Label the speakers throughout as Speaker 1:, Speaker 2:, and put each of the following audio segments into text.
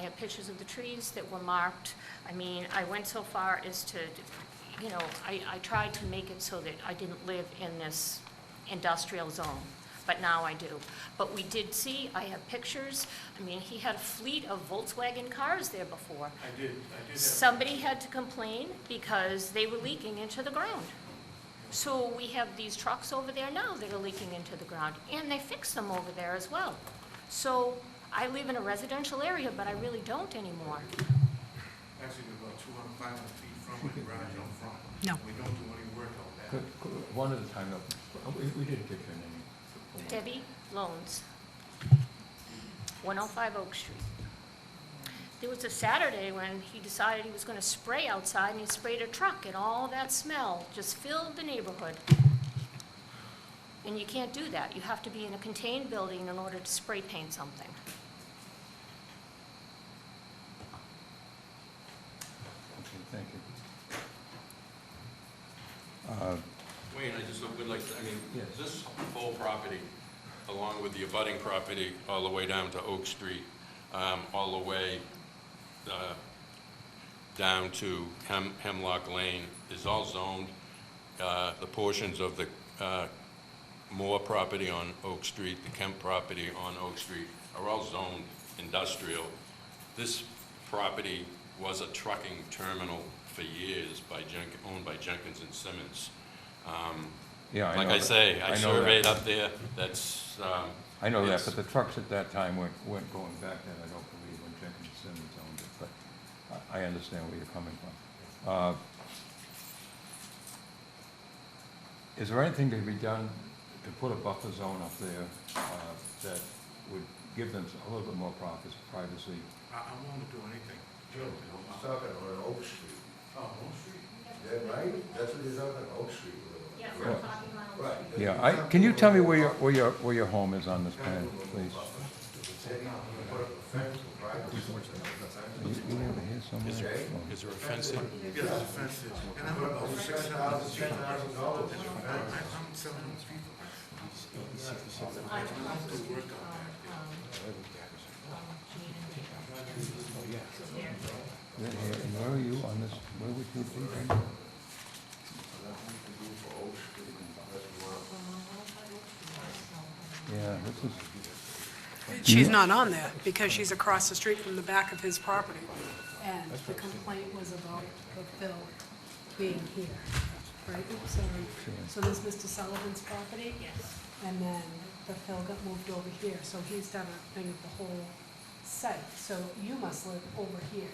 Speaker 1: have pictures of the trees that were marked. I mean, I went so far as to, you know, I, I tried to make it so that I didn't live in this industrial zone, but now I do. But we did see, I have pictures, I mean, he had a fleet of Volkswagen cars there before.
Speaker 2: I did, I did have,
Speaker 1: Somebody had to complain because they were leaking into the ground. So we have these trucks over there now that are leaking into the ground, and they fix them over there as well. So I live in a residential area, but I really don't anymore.
Speaker 2: actually we're about two hundred, five hundred feet from my garage on front.
Speaker 3: No.
Speaker 2: We don't do any work on
Speaker 4: Could-
Speaker 2: that.
Speaker 4: could- One at a time, though. We we didn't get your name. for- for-
Speaker 1: Debbie Loans, 105 Oak Street. There was a Saturday when he decided he was going to spray outside, and he sprayed a truck, and all that smell just filled the neighborhood. And you can't do that. You have to be in a contained building in order to spray paint something.
Speaker 4: Okay, thank you.
Speaker 5: Wayne, I just would like, to- I mean,
Speaker 4: Yes.
Speaker 5: this whole property, along with the abutting property, all the way down to Oak Street, um, all the way uh, down to Hem- Hemlock Lane, is all zoned. Uh, The portions of the uh, Moore property on Oak Street, the Kemp property on Oak Street, are all zoned industrial. This property was a trucking terminal for years by Jenk, owned by Jenkins and Simmons.
Speaker 4: Yeah,
Speaker 5: Like
Speaker 4: know
Speaker 5: I
Speaker 4: that.
Speaker 5: say, I
Speaker 4: know that.
Speaker 5: surveyed up there, that's, um...
Speaker 4: I know that,
Speaker 5: it's-
Speaker 4: but the trucks at that time weren't, weren't going back then, I don't believe, when Jenkins Simmons owned it, but I, I understand where you're coming from. Uh, Is there anything to be done to put a buffer zone up there, uh, that would give them a little bit more profit, privacy?
Speaker 2: I, I'm willing to do anything. Uh,
Speaker 6: Joe, he's talking on Oak Street,
Speaker 2: Oh, Oak Street?
Speaker 6: is that right? That's what he's talking, Oak Street. we're
Speaker 1: Yeah,
Speaker 6: on.
Speaker 1: from Poppy Lounge.
Speaker 6: Right.
Speaker 4: Yeah, I, can you tell me where your, where your, where your home is on this plan, please?
Speaker 6: Said he would put up a fence for
Speaker 4: You,
Speaker 6: privacy.
Speaker 4: you never hear
Speaker 5: Is
Speaker 4: somewhere?
Speaker 5: there,
Speaker 4: Oh.
Speaker 5: is there a fence there?
Speaker 2: Yeah, there's a fence there, and I'm
Speaker 6: Put up
Speaker 2: about
Speaker 6: over
Speaker 2: six
Speaker 6: six
Speaker 2: hundred
Speaker 6: thousand,
Speaker 2: feet.
Speaker 6: ten thousand dollars in
Speaker 2: I,
Speaker 6: a
Speaker 2: I'm
Speaker 6: fence.
Speaker 2: seven hundred feet. from
Speaker 1: I don't
Speaker 2: it. I don't do work on that.
Speaker 4: Yeah, yeah, And where are you on this, where would you be then?
Speaker 6: Nothing you can do for Oak Street unless you want to
Speaker 4: Yeah, this is, Mm-hmm.
Speaker 3: She's not on there because she's across the street from the back of his property.
Speaker 7: And the complaint was about the bill being here, right? Oops, sorry. So this is Mr. Sullivan's property?
Speaker 1: Yes.
Speaker 7: And then the fill got moved over here, so he's done a thing of the whole site. So you must live over here,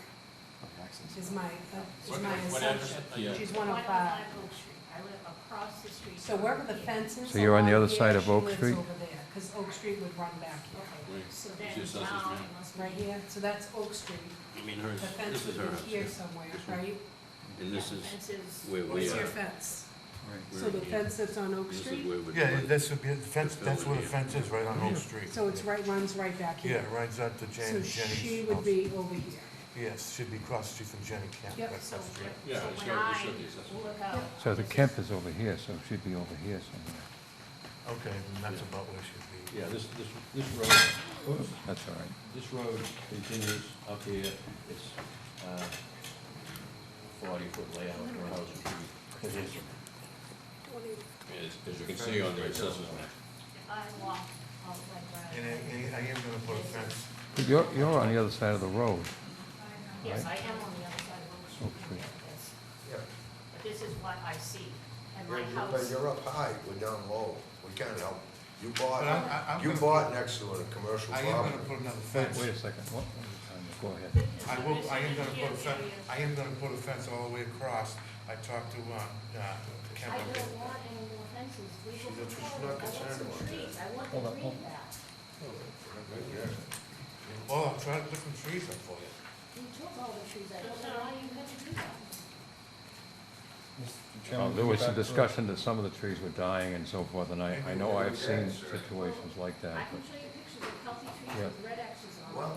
Speaker 7: is my, uh, is my assumption. She's one oh five.
Speaker 1: 105 Oak Street. I live across the street.
Speaker 7: So wherever the fence is.
Speaker 4: So you're on the
Speaker 7: along
Speaker 4: other side
Speaker 7: here,
Speaker 4: of Oak
Speaker 7: She
Speaker 4: Street?
Speaker 7: lives over there, because Oak Street would run back here,
Speaker 1: Okay, So then
Speaker 5: She says this,
Speaker 1: now
Speaker 5: ma'am.
Speaker 1: it must be
Speaker 7: right here. So that's Oak Street.
Speaker 5: I mean,
Speaker 7: The
Speaker 5: hers,
Speaker 7: fence
Speaker 5: this is
Speaker 7: would
Speaker 5: her
Speaker 7: be
Speaker 5: house,
Speaker 7: here somewhere, right?
Speaker 5: and this is
Speaker 1: Fences.
Speaker 5: where we
Speaker 7: What's
Speaker 5: are.
Speaker 7: your fence?
Speaker 4: Right.
Speaker 7: So the fence that's on Oak
Speaker 5: This is
Speaker 7: Street?
Speaker 5: where we-
Speaker 2: Yeah, that's, the fence, that's where the
Speaker 5: Yeah.
Speaker 2: fence is, right on Oak Street.
Speaker 7: So it's right, runs right back
Speaker 2: Yeah,
Speaker 7: here?
Speaker 2: right up to Jenny,
Speaker 7: So
Speaker 2: Jenny's.
Speaker 7: she
Speaker 2: house.
Speaker 7: would be over here?
Speaker 2: Yes, should be across the street from Jenny Camp.
Speaker 7: Yep.
Speaker 2: That's
Speaker 1: So
Speaker 2: up the street.
Speaker 1: when-
Speaker 5: Yeah,
Speaker 1: so
Speaker 5: it's
Speaker 1: when
Speaker 5: gotta be
Speaker 1: I
Speaker 5: something accessible.
Speaker 1: look out,
Speaker 4: so the
Speaker 1: this is-
Speaker 4: camp is over here, so it should be over here somewhere.
Speaker 2: Okay, then that's about where it should be.
Speaker 8: Yeah, this, this, this road,
Speaker 4: That's all right.
Speaker 8: this road continues up here, it's, uh, forty foot layout for a house. which would be-
Speaker 5: As, as you can see on the assessors map.
Speaker 1: I walk out like that.
Speaker 2: And I, and I am gonna put a fence.
Speaker 4: But you're, you're on the other side of the road.
Speaker 1: Yes, I am on the other side of Oak Street.
Speaker 4: Okay.
Speaker 1: Yes.
Speaker 6: Yeah.
Speaker 1: But this is what I see, and
Speaker 6: You're-
Speaker 1: my
Speaker 6: you're- But
Speaker 1: house,
Speaker 6: you're up high, we're down low, we can't help. You
Speaker 2: But I'm- I-
Speaker 6: bought,
Speaker 2: I'm
Speaker 6: you
Speaker 2: gonna
Speaker 6: bought
Speaker 2: put-
Speaker 6: next to it, a commercial
Speaker 2: I am
Speaker 6: property.
Speaker 2: gonna put another
Speaker 4: Wait
Speaker 2: fence.
Speaker 4: wait a second, what, go ahead.
Speaker 2: I will, I am gonna put a fence, I am gonna put a fence all the way across. I talked to, uh, uh, Kemp.
Speaker 1: I don't want any more fences, we
Speaker 6: She's
Speaker 1: will
Speaker 6: not- she's
Speaker 1: control
Speaker 6: not
Speaker 1: it. I want
Speaker 6: concerned
Speaker 1: some
Speaker 6: about that.
Speaker 1: trees, I want
Speaker 4: Hold
Speaker 1: the
Speaker 4: on, hold
Speaker 1: green
Speaker 4: on.
Speaker 1: back.
Speaker 2: Oh, I'm trying to put some trees up for you.
Speaker 1: You took all the trees, I don't know why you had to do that.
Speaker 4: Well, Uh, There was a discussion that some of the trees were dying and so forth, and I, I know I've seen situations like
Speaker 1: I
Speaker 4: that,
Speaker 1: can
Speaker 4: but
Speaker 1: show you pictures of healthy
Speaker 4: Yeah.
Speaker 1: trees with red X's on
Speaker 2: Well,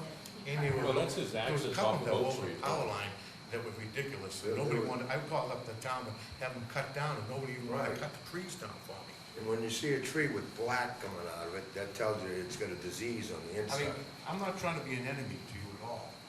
Speaker 1: them.
Speaker 2: Amy,
Speaker 5: Well, that's his
Speaker 2: there was a
Speaker 5: access off
Speaker 2: couple
Speaker 5: of
Speaker 2: that were
Speaker 5: Oak
Speaker 2: over
Speaker 5: Street.
Speaker 2: the power line that were ridiculous.
Speaker 6: Yeah,
Speaker 2: Nobody
Speaker 6: they were-
Speaker 2: wanted, I called up the town to have them cut down, and nobody even wanted to
Speaker 6: Right.
Speaker 2: cut the trees down for me.
Speaker 6: And when you see a tree with black coming out of it, that tells you it's got a disease on the
Speaker 2: I mean,
Speaker 6: inside.
Speaker 2: I'm not trying to be an enemy to you,